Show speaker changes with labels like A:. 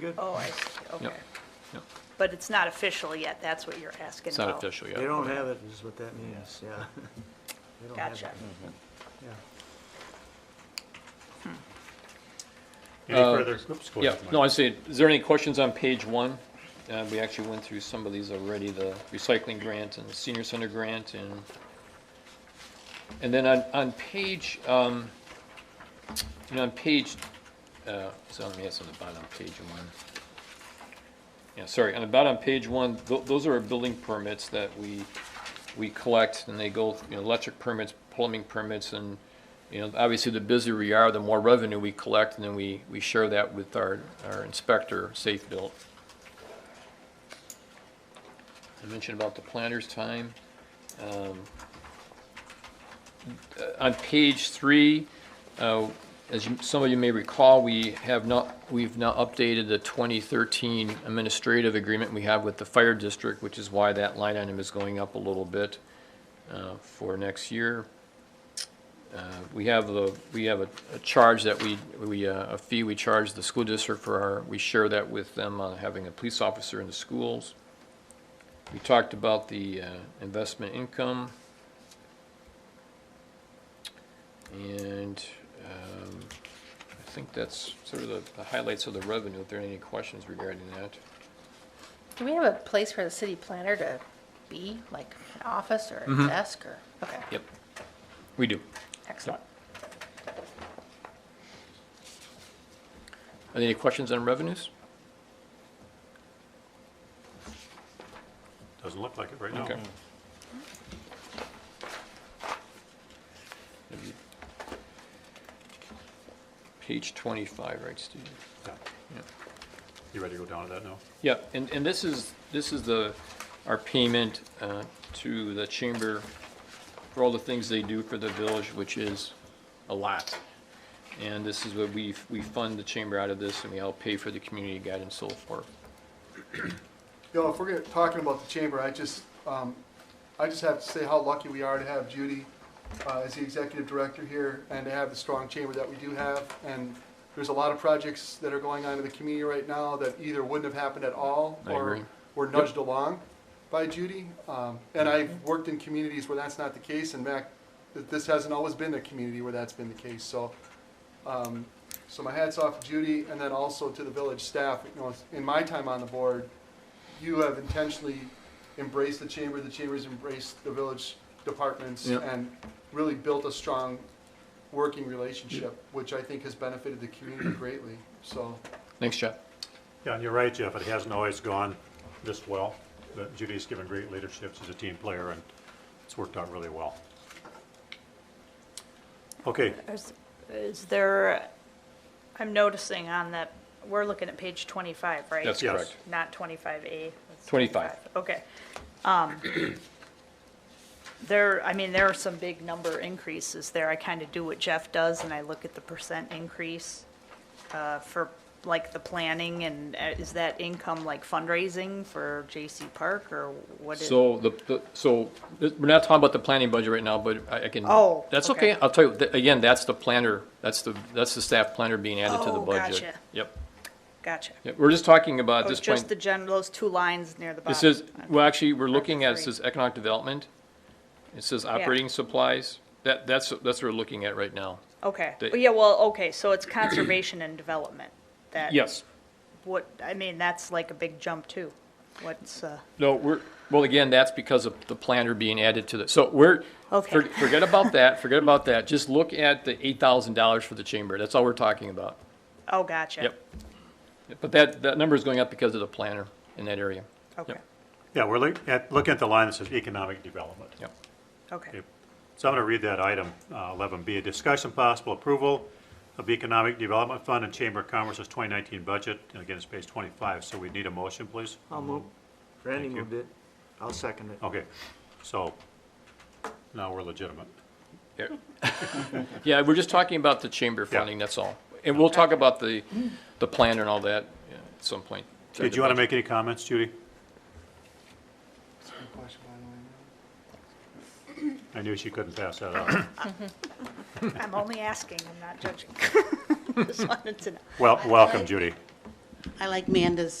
A: Good.
B: Oh, I see, okay.
C: Yep.
B: But it's not official yet, that's what you're asking
C: It's not
B: about.
C: official yet.
A: They don't have it, is what that means, yeah. They don't have it.
B: Gotcha.
A: Yeah.
D: Any
C: Uh,
D: further, oops, go
C: Yeah,
D: ahead.
C: no,
D: Mike.
C: I see. Is there any questions on page one? Uh, we actually went through some of these already, the recycling grant and the senior center grant and, and then on, on page, um, you know, on page, uh, so let me ask on the bottom of page one. Yeah, sorry, on the bottom of page one, tho- those are our building permits that we, we collect and they go, you know, electric permits, plumbing permits and, you know, obviously the busier we are, the more revenue we collect and then we, we share that with our, our inspector, Safe Built. I mentioned about the planner's time. Um, uh, On page three, uh, as you- some of you may recall, we have not, we've now updated the 2013 administrative agreement we have with the fire district, which is why that line item is going up a little bit uh, for next year. Uh, We have the, we have a a charge that we, we, uh, a fee we charge the school district for our, we share that with them on having a police officer in the schools. We talked about the uh, investment income. And um, I think that's sort of the- the highlights of the revenue, if there are any questions regarding that.
E: Do we have a place for the city planner to be, like an office or a desk or, okay,
C: Yep, we do.
E: excellent.
C: Are there any questions on revenues?
D: Doesn't look like it right now.
C: Okay. Page 25, right, Steve?
D: Yeah.
C: Yeah.
D: You ready to go down to that now?
C: Yeah, and, and this is, this is the, our payment uh, to the chamber for all the things they do for the village, which is a lot. And this is what we, we fund the chamber out of this, and we help pay for the community guide and so forth.
F: Yo, if we're gonna- talking about the chamber, I just, um, I just have to say how lucky we are to have Judy uh, as the executive director here and to have the strong chamber that we do have. And there's a lot of projects that are going on in the community right now that either wouldn't have happened at all
C: I
F: or
C: agree.
F: were nudged along by Judy. Um, And I've worked in communities where that's not the case and Mac, th- this hasn't always been a community where that's been the case. So um, So my hat's off to Judy and then also to the village staff. You know, in my time on the board, you have intentionally embraced the chamber, the chamber's embraced the village departments
C: Yeah.
F: and really built a strong working relationship, which I think has benefited the community greatly. So
C: Thanks, Jeff.
D: Yeah, and you're right, Jeff, it hasn't always gone this well, but Judy's given great leadership, she's a team player, and it's worked out really well. Okay,
B: Is- Is there, I'm noticing on that, we're looking at page 25, right?
C: That's
D: Yes.
C: correct.
B: Not 25A? That's
C: 25.
B: Okay. Um, There, I mean, there are some big number increases there. I kind of do what Jeff does, and I look at the percent increase uh, for, like, the planning, and uh, is that income like fundraising for J.C. Park, or what is?
C: So the, the- so, th- we're not talking about the planning budget right now, but I I can.
B: Oh,
C: That's
B: okay.
C: okay, I'll tell you, th- again, that's the planner, that's the, that's the staff planner being added to the
B: Oh,
C: budget.
B: gotcha.
C: Yep,
B: Gotcha.
C: Yep, we're just talking about at
B: Oh,
C: this
B: just
C: point.
B: the gen, those two lines near the bottom.
C: It says, well, actually, we're looking at, it
B: three.
C: says economic development. It says operating supplies. That, that's, that's what we're looking at right now.
B: Okay,
C: the-
B: Well, yeah, well, okay, so it's conservation and development, that.
C: Yes.
B: What, I mean, that's like a big jump too, what's, uh,
C: No, we're, well, again, that's because of the planner being added to the, so we're,
B: Okay.
C: for- forget about that, forget about that. Just look at the eight thousand dollars for the chamber. That's all we're talking about.
B: oh, gotcha.
C: Yep. But that, that number is going up because of the planner in that area.
B: Okay,
C: Yep.
D: yeah, we're looking at, looking at the line that says economic development.
C: Yep.
B: okay,
D: Okay. So I'm going to read that item, uh, 11B. Discussion possible approval of Economic Development Fund and Chamber of Commerce's 2019 budget. And again, it's page 25, so we need a motion, please.
A: I'll move. Randy
D: Thank you.
A: moved it. I'll second it.
D: Okay, so now we're legitimate.
C: Yeah, we're just talking about the chamber
D: Yeah.
C: funding, that's all. And we'll talk about the, the planner and all that yeah, at some point.
D: Did you want to make any comments, Judy? I knew she couldn't pass that up.
B: I'm only asking, I'm not judging. Just wanted to know.
D: Well, welcome, Judy.
G: I like Manda's